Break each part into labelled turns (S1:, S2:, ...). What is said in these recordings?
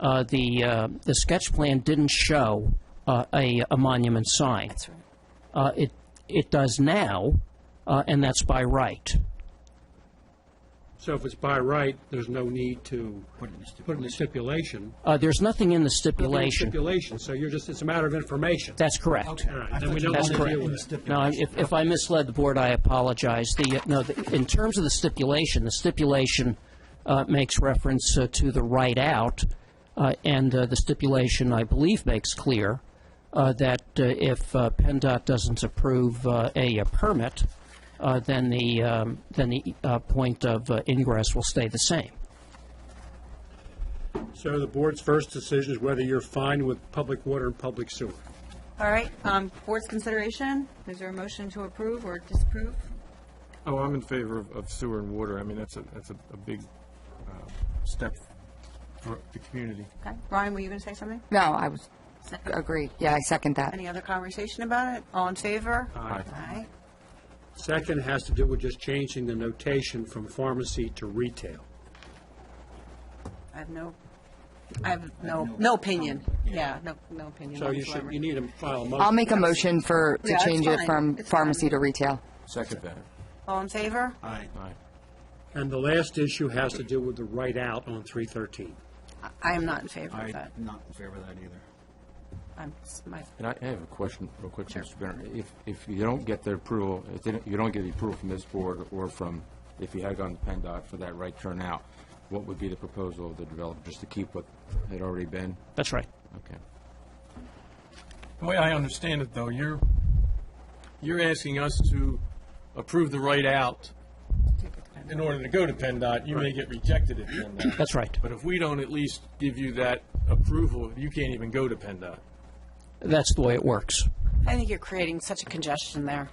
S1: uh, the, uh, the sketch plan didn't show uh, a, a monument sign. Uh, It, it does now, uh, and that's by right.
S2: So if it's by right, there's no need to put in the stipulation.
S1: Uh, There's nothing in the
S2: Nothing in the
S1: stipulation.
S2: Stipulation, so you're just, it's a matter of information.
S1: That's correct.
S2: All right, then we don't
S1: That's
S2: want to deal
S1: correct.
S2: with it.
S1: No, I- if, if I misled the board, I apologize. The, uh, no, the- in terms of the stipulation, the stipulation uh, makes reference uh, to the right out, uh, and uh, the stipulation, I believe, makes clear uh, that uh, if uh, PennDOT doesn't approve uh, a a permit, uh, then the, um, then the uh, point of uh, ingress will stay the same.
S2: So the board's first decision is whether you're fine with public water and public sewer.
S3: All right, um, board's consideration, is there a motion to approve or disapprove?
S4: Oh, I'm in favor of, of sewer and water. I mean, that's a, that's a, a big, uh, step for the community.
S3: Okay, Ryan, were you going to say something?
S5: No, I was, agree, yeah, I second that.
S3: Any other conversation about it? All in favor?
S4: Aye.
S3: Aye.
S2: Second has to do with just changing the notation from pharmacy to retail.
S3: I have no, I have no, no opinion. Yeah, no, no opinion.
S2: So you should,
S3: whatsoever.
S2: you need to file a motion.
S5: I'll make a motion for,
S3: Yeah,
S5: to
S3: it's
S5: change it
S3: fine.
S5: from
S3: It's
S5: pharmacy
S3: fine.
S5: to retail.
S4: Second that.
S3: All in favor?
S4: Aye.
S2: And the last issue has to do with the right out on 313.
S3: I am not in favor of
S6: I'm
S3: that.
S6: not in favor of that either.
S3: I'm, my,
S4: And I I have a question, real quick, Mr. Bennett. If, if you don't get the approval, if they don't- you don't get the approval from this board or from, if you had gone to PennDOT for that right turn out, what would be the proposal of the developer, just to keep what had already been?
S1: That's right.
S4: Okay.
S7: The way I understand it, though, you're, you're asking us to approve the right out in order to go to PennDOT. You may get rejected at PennDOT.
S1: That's right.
S7: But if we don't at least give you that approval, you can't even go to PennDOT.
S1: That's the way it works.
S3: I think you're creating such a congestion there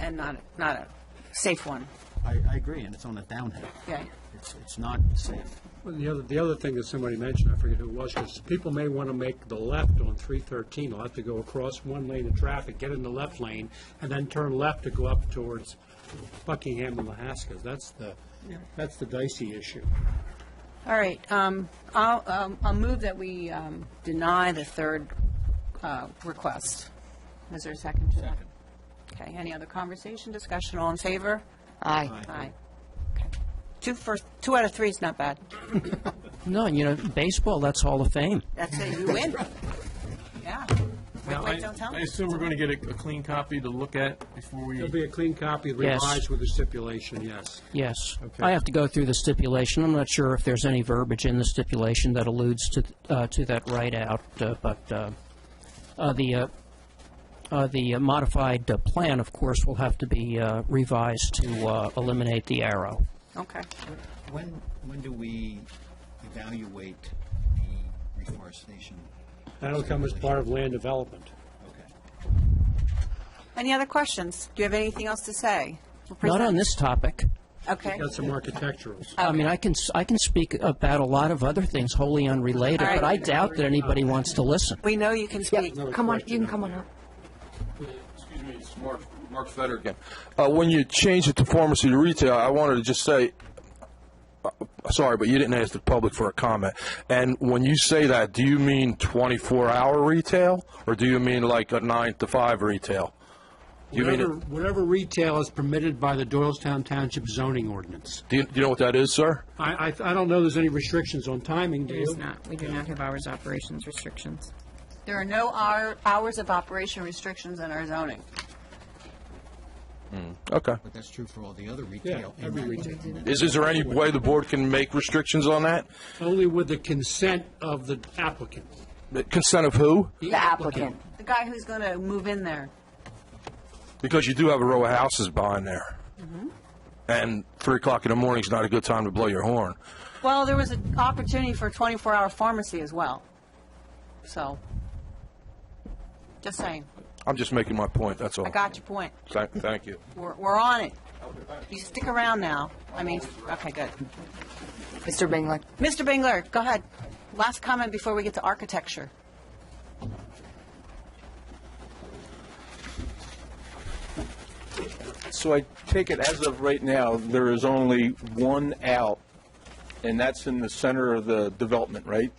S3: and not, not a safe one.
S6: I, I agree, and it's on a downhill.
S3: Yeah.
S6: It's, it's not safe.
S2: Well, The other, the other thing that somebody mentioned, I forget who it was, because people may want to make the left on 313, they'll have to go across one lane of traffic, get in the left lane, and then turn left to go up towards Buckingham and Lahaska. That's the, that's the dicey issue.
S3: All right, um, I'll, um, I'll move that we, um, deny the third, uh, request. Is there a second to that? Okay, any other conversation, discussion, all in favor?
S5: Aye.
S3: Aye. Okay. Two first, two out of three is not bad.
S1: No, and you know, baseball, that's Hall of Fame.
S3: That's it, you win. Yeah. Wait,
S7: Now, I-
S3: wait, don't tell
S7: I
S3: me.
S7: assume we're going to get a, a clean copy to look at before we.
S2: It'll be a clean copy
S1: Yes.
S2: revised with the stipulation, yes.
S1: Yes.
S7: Okay.
S1: I have to go through the stipulation. I'm not sure if there's any verbiage in the stipulation that alludes to, uh, to that right out, uh, but, uh, uh, the, uh, uh, the uh, modified uh, plan, of course, will have to be, uh, revised to, uh, eliminate the arrow.
S3: Okay.
S6: When, when do we evaluate the reforestation?
S2: That'll come as part of land development.
S6: Okay.
S3: Any other questions? Do you have anything else to say?
S1: Not
S3: We'll
S1: on
S3: present-
S1: this topic.
S3: Okay.
S2: Got some architecturals.
S1: I mean, I can, s- I can speak about a lot of other things wholly unrelated,
S3: All right.
S1: but I doubt that anybody wants to listen.
S3: We know you can speak.
S5: Come on, you can come on up.
S8: Excuse me, it's Mark, Mark Fetter again. Uh, when you change it to pharmacy to retail, I wanted to just say, uh, sorry, but you didn't ask the public for a comment. And when you say that, do you mean 24-hour retail, or do you mean like a 9 to 5 retail? Do you mean,
S2: Whatever,
S8: it-
S2: whatever retail is permitted by the Doylestown Township zoning ordinance.
S8: do you, do you know what that is, sir?
S2: I, I, I don't know there's any restrictions on timing, do you?
S9: not, we do not have hours operations restrictions.
S3: There are no hour, hours of operation restrictions in our zoning.
S8: Okay.
S6: But that's true for all the other retail.
S2: Yeah, every retail.
S8: Is, is there any way the board can make restrictions on that?
S2: Only with the consent of the applicant.
S8: The Consent of who?
S5: The applicant.
S3: The guy who's going to move in there.
S8: Because you do have a row of houses behind there.
S3: Mm-hmm.
S8: And 3 o'clock in the morning is not a good time to blow your horn.
S3: Well, there was an opportunity for a 24-hour pharmacy as well. So, just saying.
S8: I'm just making my point, that's all.
S3: I got your point.
S8: Thank, thank you.
S3: We're, we're on it. You stick around now. I mean, okay, good.
S5: Mr. Bingley.
S3: Mr. Bingler, go ahead. Last comment before we get to architecture.
S10: So I take it as of right now, there is only one out, and that's in the center of the development, right?